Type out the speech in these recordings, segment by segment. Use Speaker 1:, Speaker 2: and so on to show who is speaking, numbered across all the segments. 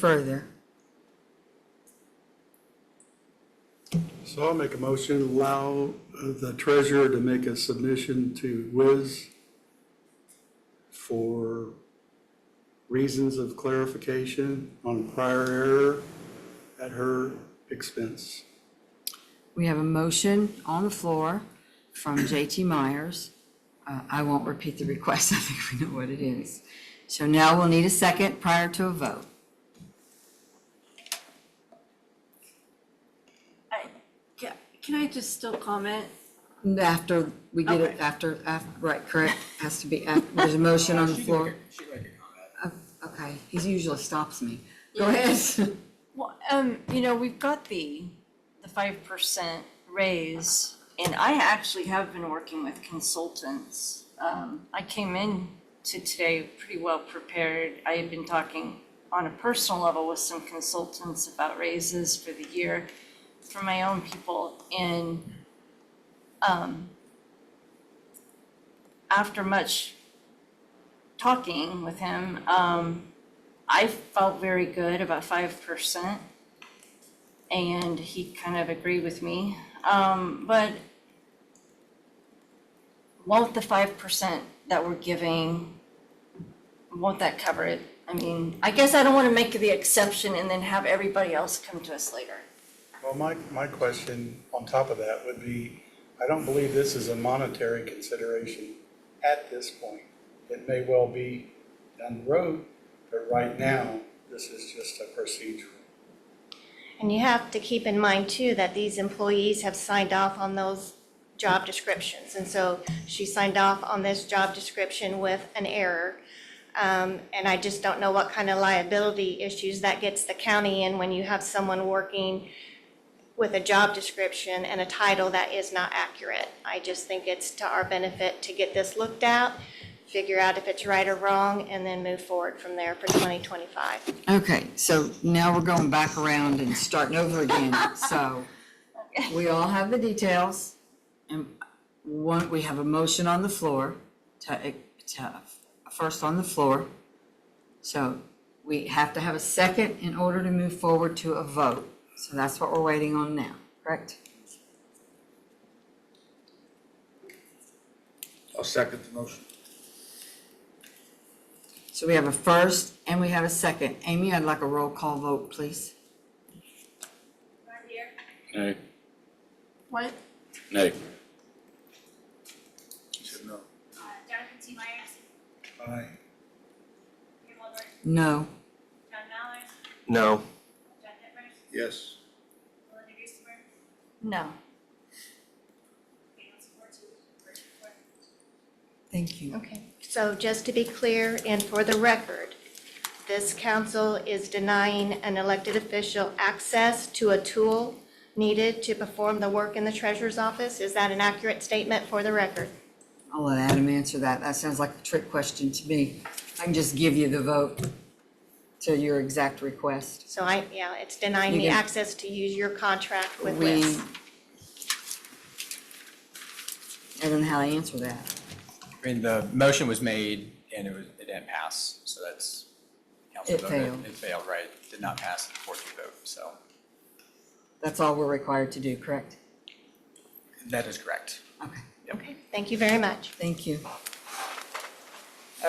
Speaker 1: further.
Speaker 2: So I'll make a motion, allow uh, the treasurer to make a submission to Wiz for reasons of clarification on prior error at her expense.
Speaker 1: We have a motion on the floor from JT Myers. Uh, I won't repeat the request, I think we know what it is. So now we'll need a second prior to a vote.
Speaker 3: I- ca- Can I just still comment?
Speaker 1: And After we get it,
Speaker 3: Okay.
Speaker 1: after, af- right, correct, has to be, after there's a motion on the floor. Oh, Okay, he usually stops me. Go ahead.
Speaker 3: Well, um, you know, we've got the, the five percent raise, and I actually have been working with consultants. Um, I came in to today pretty well prepared. I had been talking on a personal level with some consultants about raises for the year for my own people, and, um, after much talking with him, um, I felt very good about five percent. And he kind of agreed with me, um, but won't the five percent that we're giving, won't that cover it? I mean, I guess I don't wanna make the exception and then have everybody else come to us later.
Speaker 2: Well, my, my question on top of that would be, I don't believe this is a monetary consideration at this point. It may well be down the road, but right now, this is just a procedural.
Speaker 4: And you have to keep in mind too that these employees have signed off on those job descriptions. And so she signed off on this job description with an error. Um, and I just don't know what kind of liability issues that gets the county in when you have someone working with a job description and a title that is not accurate. I just think it's to our benefit to get this looked at, figure out if it's right or wrong, and then move forward from there for twenty twenty-five.
Speaker 1: Okay, so now we're going back around and starting over again, so we all have the details. And one, we have a motion on the floor, to, to, first on the floor. So we have to have a second in order to move forward to a vote. So that's what we're waiting on now, correct?
Speaker 5: I'll second the motion.
Speaker 1: So we have a first and we have a second. Amy, I'd like a roll call vote, please.
Speaker 6: Nay.
Speaker 3: What?
Speaker 6: Nay.
Speaker 5: You said no.
Speaker 7: Uh, Jonathan T. Myers,
Speaker 5: Aye.
Speaker 7: Ian Wilbur,
Speaker 1: No.
Speaker 7: John Mallers,
Speaker 8: No.
Speaker 7: John Dippers,
Speaker 5: Yes.
Speaker 7: Melinda Griezmer,
Speaker 3: No.
Speaker 7: Daniel Sikorsky, Richard Ford.
Speaker 1: Thank you.
Speaker 4: Okay, so just to be clear and for the record, this council is denying an elected official access to a tool needed to perform the work in the treasurer's office. Is that an accurate statement for the record?
Speaker 1: I'll let Adam answer that. That sounds like a trick question to me. I can just give you the vote to your exact request.
Speaker 4: So I, yeah, it's denying me
Speaker 1: You can-
Speaker 4: access to use your contract with
Speaker 1: We,
Speaker 4: WIS.
Speaker 1: I don't know how to answer that.
Speaker 9: I mean, the motion was made and it was, it didn't pass, so that's. council
Speaker 1: It
Speaker 9: voted.
Speaker 1: failed.
Speaker 9: It failed, right, did not pass the fourth vote, so
Speaker 1: That's all we're required to do, correct?
Speaker 9: that is correct.
Speaker 1: Okay,
Speaker 4: Okay, thank you very much.
Speaker 1: thank you.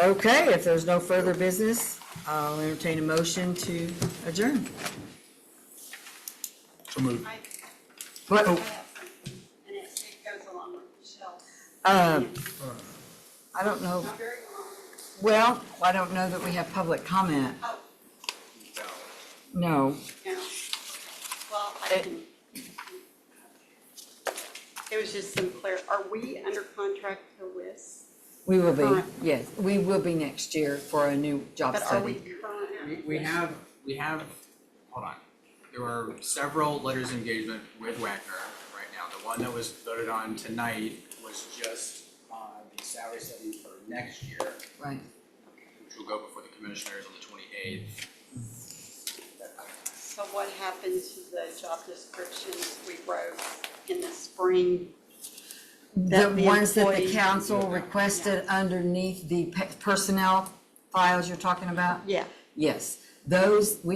Speaker 1: Okay, if there's no further business, I'll entertain a motion to adjourn.
Speaker 5: So moved.
Speaker 1: What, oh,
Speaker 10: And it, it goes along with Michelle's,
Speaker 1: uh, I don't know,
Speaker 10: not very long.
Speaker 1: well, I don't know that we have public comment.
Speaker 10: Oh.
Speaker 1: No.
Speaker 10: No. Well, I
Speaker 1: It-
Speaker 10: can. It was just some clear, are we under contract to WIS?
Speaker 1: We will be,
Speaker 10: Current.
Speaker 1: yes, we will be next year for a new job
Speaker 10: But are we
Speaker 1: study.
Speaker 10: current?
Speaker 9: We, we have, we have, hold on, there were several letters of engagement with Wagner right now. The one that was voted on tonight was just, uh, the salary study for next year.
Speaker 1: Right,
Speaker 9: which will go before the commissioners on the twenty-eighth.
Speaker 10: So what happened to the job descriptions we wrote in the spring?
Speaker 1: the
Speaker 10: That the
Speaker 1: ones that the
Speaker 10: employee-
Speaker 1: council requested underneath the pe- personnel files you're talking about?
Speaker 10: Yeah.
Speaker 1: Yes, those, we